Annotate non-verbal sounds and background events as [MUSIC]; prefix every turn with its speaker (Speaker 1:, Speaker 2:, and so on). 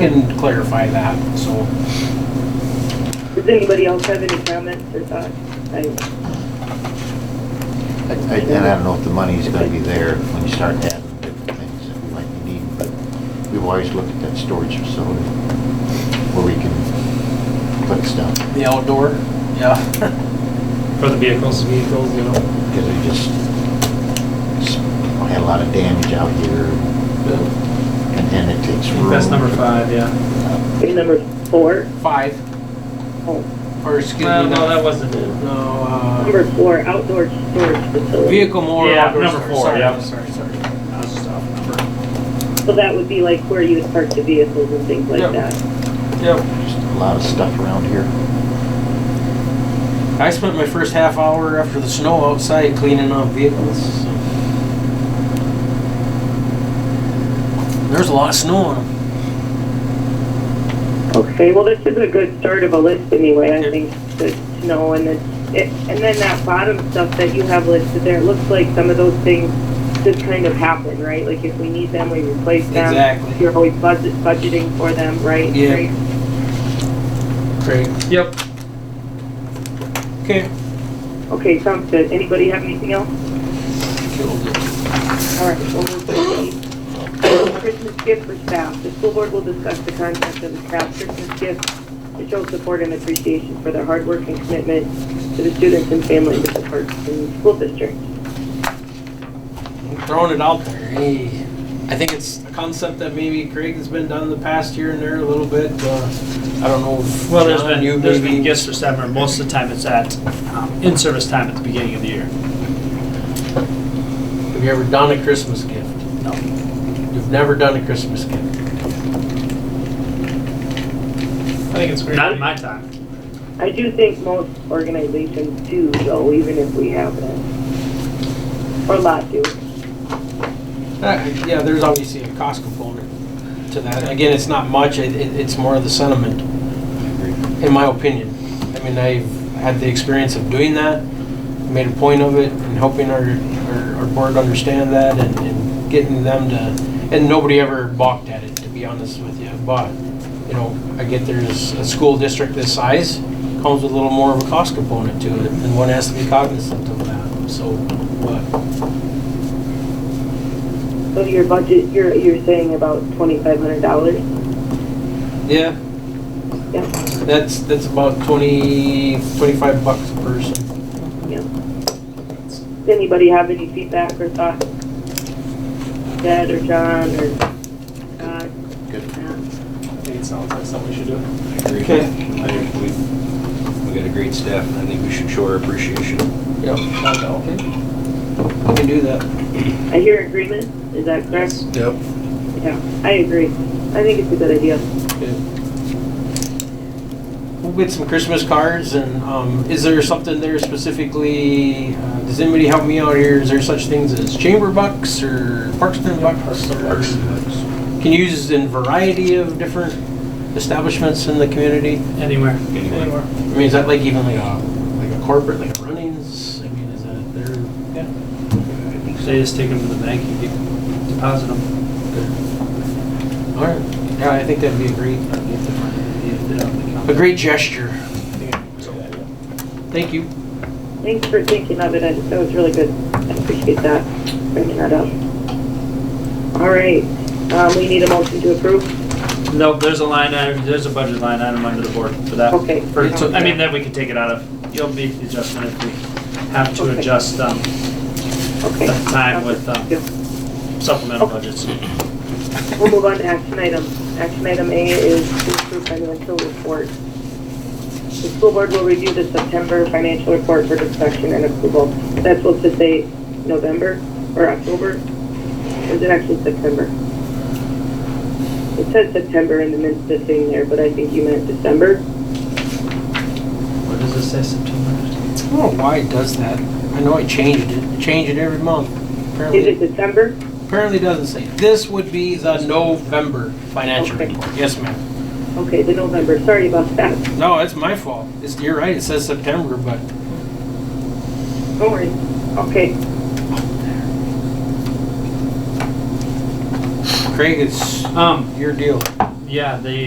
Speaker 1: can clarify that, so.
Speaker 2: Does anybody else have any comments or thoughts? I-
Speaker 3: I- I- And I don't know if the money's gonna be there when you start adding different things that we might need, but we've always looked at that storage facility where we can put stuff,
Speaker 1: The outdoor, yeah.
Speaker 4: For the vehicles, vehicles, you know?
Speaker 3: because we just s- had a lot of damage out here, and and it takes
Speaker 4: I
Speaker 3: room.
Speaker 4: think that's number five, yeah.
Speaker 2: Okay, number four,
Speaker 1: [LAUGHS] Five,
Speaker 2: oh,
Speaker 1: or excuse me.
Speaker 4: Well, no,
Speaker 1: no,
Speaker 4: that wasn't it.
Speaker 1: No, uh,
Speaker 2: number four, outdoor storage facility.
Speaker 1: vehicle more
Speaker 4: Yeah,
Speaker 1: outdoor
Speaker 4: number
Speaker 1: storage.
Speaker 4: four,
Speaker 1: Sorry,
Speaker 4: yeah.
Speaker 1: Sorry, sorry. I was just off number.
Speaker 2: So that would be like where you would park the vehicles and things like
Speaker 1: Yep.
Speaker 2: that.
Speaker 1: Yep.
Speaker 3: Just a lot of stuff around here.
Speaker 1: I spent my first half hour after the snow outside cleaning up vehicles. so. There's a lot of snow on them.
Speaker 2: Okay, well, this is a good start of a list anyway, I
Speaker 1: Yep.
Speaker 2: think, to to know, and then, it- and then that bottom stuff that you have listed there, it looks like some of those things just kind of happen, right? Like if we need them, we replace them.
Speaker 1: Exactly.
Speaker 2: You're always budget, budgeting for them, right?
Speaker 1: Yeah.
Speaker 2: Right?
Speaker 1: Great.
Speaker 4: Yep.
Speaker 1: Okay.
Speaker 2: Okay, sounds good. Anybody have anything else?
Speaker 1: Killed it.
Speaker 2: All right, we'll move to the Christmas gift for staff. The school board will discuss the concept of the staff Christmas gift to show support and appreciation for their hard work and commitment to the students and families of the Park and School District.
Speaker 1: I'm throwing it out there. Hey, I think it's a concept that maybe Craig has been done the past year and there a little bit. Uh, I don't know. If
Speaker 4: Well, there's
Speaker 1: John, you
Speaker 4: been, there's
Speaker 1: maybe-
Speaker 4: been gifts for summer, most of the time it's at, um, in-service time at the beginning of the year.
Speaker 1: Have you ever done a Christmas gift?
Speaker 4: No.
Speaker 1: You've never done a Christmas gift.
Speaker 4: I think it's Not in my time.
Speaker 2: I do think most organizations do though, even if we haven't. Or a lot do.
Speaker 1: Uh, yeah, there's obviously a cost component to that. Again, it's not much. It, it, it's more of the sentiment, in my opinion. I mean, I've had the experience of doing that, made a point of it, and helping our, our, our board understand that and, and getting them to. And nobody ever balked at it, to be honest with you. But, you know, I get there's a school district this size, comes with a little more of a cost component to it, and one has to be cognizant of that. So, but,
Speaker 2: So your budget, you're, you're saying about twenty-five hundred dollars?
Speaker 1: yeah,
Speaker 2: Yeah,
Speaker 1: That's, that's about 20, 25 bucks a person.
Speaker 2: yeah. Does anybody have any feedback or thoughts? Ted or John or Scott?
Speaker 3: Good.
Speaker 4: I think it sounds like something we should do.
Speaker 5: agree.
Speaker 1: Okay.
Speaker 5: I think We we got a great staff, and I think we should show our appreciation.
Speaker 1: Yep. We can do that.
Speaker 2: I hear agreement, is that correct?
Speaker 5: Yep.
Speaker 2: Yeah, I agree. I think it's a good idea.
Speaker 1: We'll get some Christmas cards and, um, is there something there specifically, uh, does anybody help me out here? Is there such things as chamber bucks or Parkston bucks? or- Can you use in variety of different establishments in the community?
Speaker 4: Anywhere.
Speaker 5: Anywhere.
Speaker 1: I mean, is that like even like a, like a corporate, like a Runnings? I mean, is that their? Yeah.
Speaker 4: They just take them to the bank and get, deposit them.
Speaker 1: All right. Yeah, I think that'd be a great, a
Speaker 4: Agree.
Speaker 1: great gesture. Thank you.
Speaker 2: Thanks for thinking of it, I- that was really good. I appreciate that, bringing that up. All right, um, we need a motion to approve?
Speaker 4: No, there's a line item, there's a budget line item under the board for that.
Speaker 2: Okay.
Speaker 4: For- I mean, that we can take it out of, you'll make the adjustment if we have to
Speaker 2: Okay.
Speaker 4: adjust, um,
Speaker 2: Okay.
Speaker 4: That's time with, um,
Speaker 2: Yeah.
Speaker 4: supplemental budgets.
Speaker 2: We'll move on to action item. Action item A is to approve financial report. The school board will review the September financial report for discussion and approval. That's supposed to say November or October? Or is it actually September? It says September in the midst of thing there, but I think you meant December.
Speaker 4: What does it say, September?
Speaker 1: I don't know why it does that. I know I changed it. I change it every month.
Speaker 2: Is it
Speaker 1: Apparently,
Speaker 2: December?
Speaker 1: apparently it doesn't say. This would be the November financial
Speaker 2: Okay.
Speaker 1: report. Yes, ma'am.
Speaker 2: Okay, the November, sorry about that.
Speaker 1: No, it's my fault. It's, you're right, it says September, but
Speaker 2: Don't worry. Okay,
Speaker 1: Craig, it's
Speaker 4: Um,
Speaker 1: your deal.
Speaker 4: You Yeah, the